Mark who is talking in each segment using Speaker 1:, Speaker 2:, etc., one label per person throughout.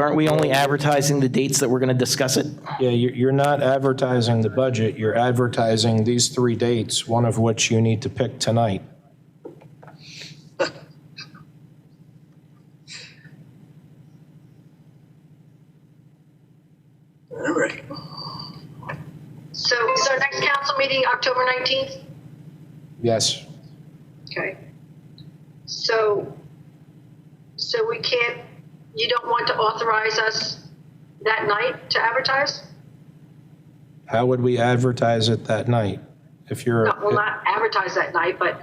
Speaker 1: aren't we only advertising the dates that we're going to discuss it?
Speaker 2: Yeah, you- you're not advertising the budget, you're advertising these three dates, one of which you need to pick tonight.
Speaker 3: All right.
Speaker 4: So is our next council meeting October 19th?
Speaker 2: Yes,
Speaker 4: Okay. So, so we can't, you don't want to authorize us that night to advertise?
Speaker 2: how would we advertise it that night? If you're,
Speaker 4: No, Well, not advertise that night, but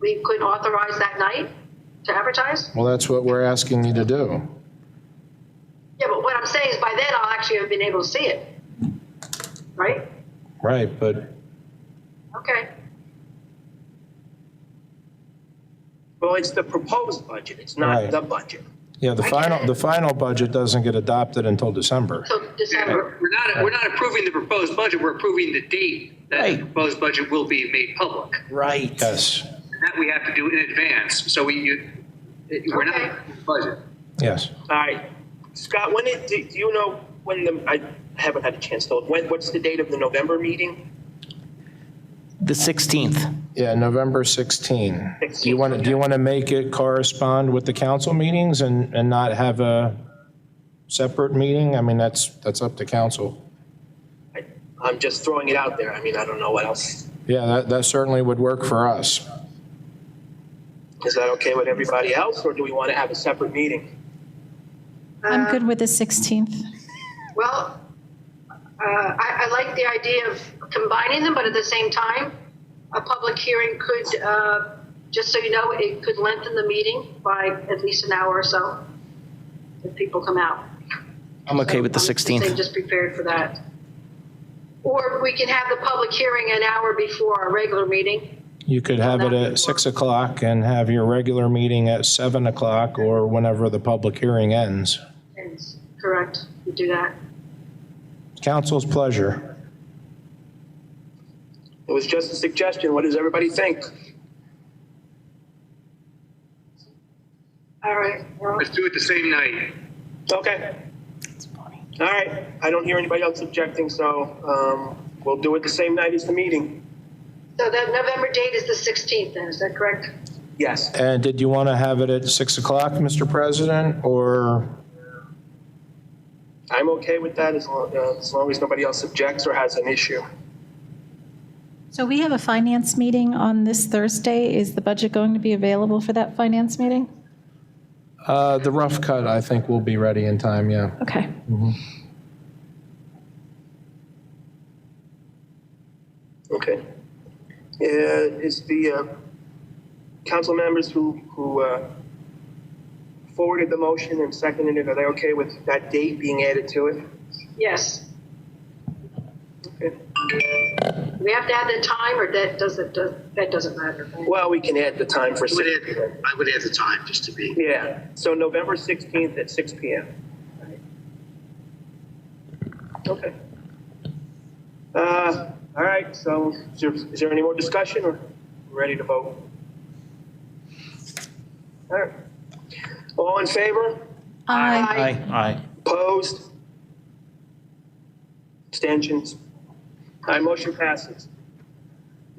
Speaker 4: we could authorize that night to advertise?
Speaker 2: well, that's what we're asking you to do.
Speaker 4: Yeah, but what I'm saying is by then I'll actually have been able to see it. Right?
Speaker 2: Right, but
Speaker 4: Okay.
Speaker 3: Well, it's the proposed budget, it's not
Speaker 2: Right.
Speaker 3: the budget.
Speaker 2: Yeah, the final, the final budget doesn't get adopted until December.
Speaker 4: So December.
Speaker 5: We're not, we're not approving the proposed budget, we're approving the date that
Speaker 1: Right.
Speaker 5: the proposed budget will be made public.
Speaker 1: Right.
Speaker 2: Yes,
Speaker 5: And That we have to do in advance, so we, you, we're
Speaker 4: Okay.
Speaker 5: not, budget.
Speaker 2: yes.
Speaker 3: All right. Scott, when it, do do you know when the, I haven't had a chance to, when, what's the date of the November meeting?
Speaker 1: The 16th.
Speaker 2: Yeah, November 16. Do you want to, do you want to make it correspond with the council meetings and, and not have a separate meeting? I mean, that's, that's up to council.
Speaker 3: I- I'm just throwing it out there. I mean, I don't know what else.
Speaker 2: Yeah, that, that certainly would work for us.
Speaker 3: Is that okay with everybody else, or do we want to have a separate meeting?
Speaker 6: I'm good with the 16th.
Speaker 4: Well, uh, I, I like the idea of combining them, but at the same time, a public hearing could, uh, just so you know, it could lengthen the meeting by at least an hour or so if people come out.
Speaker 1: I'm okay with the
Speaker 4: I'm just saying,
Speaker 1: 16th.
Speaker 4: Just prepared for that. Or we can have the public hearing an hour before our regular meeting.
Speaker 2: You could have it at 6 o'clock and have your regular meeting at 7 o'clock or whenever the public hearing ends.
Speaker 4: And Correct, we do that.
Speaker 2: Council's pleasure.
Speaker 3: It was just a suggestion. What does everybody think?
Speaker 4: All right, well,
Speaker 5: Let's do it the same night.
Speaker 3: Okay. All right. I don't hear anybody else objecting, so um, we'll do it the same night as the meeting.
Speaker 4: so that November date is the 16th then, is that correct?
Speaker 3: Yes.
Speaker 2: And did you want to have it at 6 o'clock, Mr. President, or
Speaker 3: I'm okay with that as long, uh, as long as nobody else objects or has an issue.
Speaker 6: So we have a finance meeting on this Thursday. Is the budget going to be available for that finance meeting?
Speaker 2: Uh, The rough cut, I think, will be ready in time, yeah.
Speaker 6: Okay.
Speaker 3: Okay. Uh, is the uh, council members who, who uh, forwarded the motion and seconded it, are they okay with that date being added to it?
Speaker 4: Yes.
Speaker 3: Okay.
Speaker 4: We have to add the time, or that doesn't, does- that doesn't matter.
Speaker 3: Well, we can add the time for
Speaker 5: I would
Speaker 3: six.
Speaker 5: add, I would add the time, just to be.
Speaker 3: Yeah, so November 16th at six PM. Okay. Uh, All right, so is there, is there any more discussion or ready to vote? All right. All in favor?
Speaker 6: Aye.
Speaker 1: Aye. Aye.
Speaker 3: Opposed? Abstentions? All right, motion passes.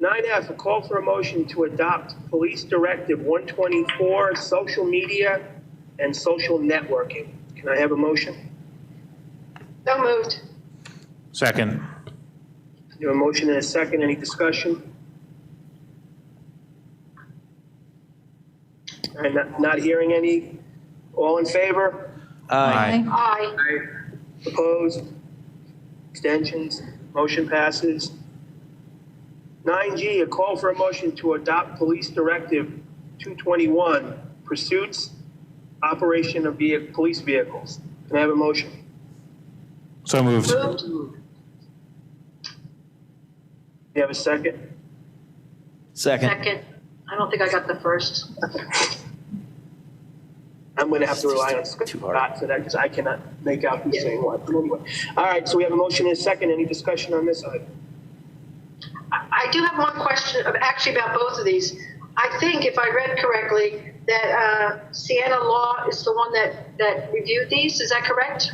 Speaker 3: 9F, a call for a motion to adopt Police Directive 124, social media and social networking. Can I have a motion?
Speaker 4: So moved.
Speaker 7: Second.
Speaker 3: You have a motion and a second, any discussion? All right, not, not hearing any. All in favor?
Speaker 7: Aye.
Speaker 4: Aye.
Speaker 3: Opposed? Extensions? Motion passes. 9G, a call for a motion to adopt Police Directive 221, pursuits, operation of vehi- police vehicles. Can I have a motion?
Speaker 7: So moved.
Speaker 4: Moved.
Speaker 3: Do you have a second?
Speaker 1: Second.
Speaker 4: Second. I don't think I got the first.
Speaker 3: I'm going to have to rely on
Speaker 1: Too hard.
Speaker 3: Scott for that because I cannot make out who's saying what. But anyway. All right, so we have a motion and a second. Any discussion on this item?
Speaker 4: I I do have one question, of- actually about both of these. I think, if I read correctly, that uh, Sienna Law is the one that, that reviewed these. Is that correct?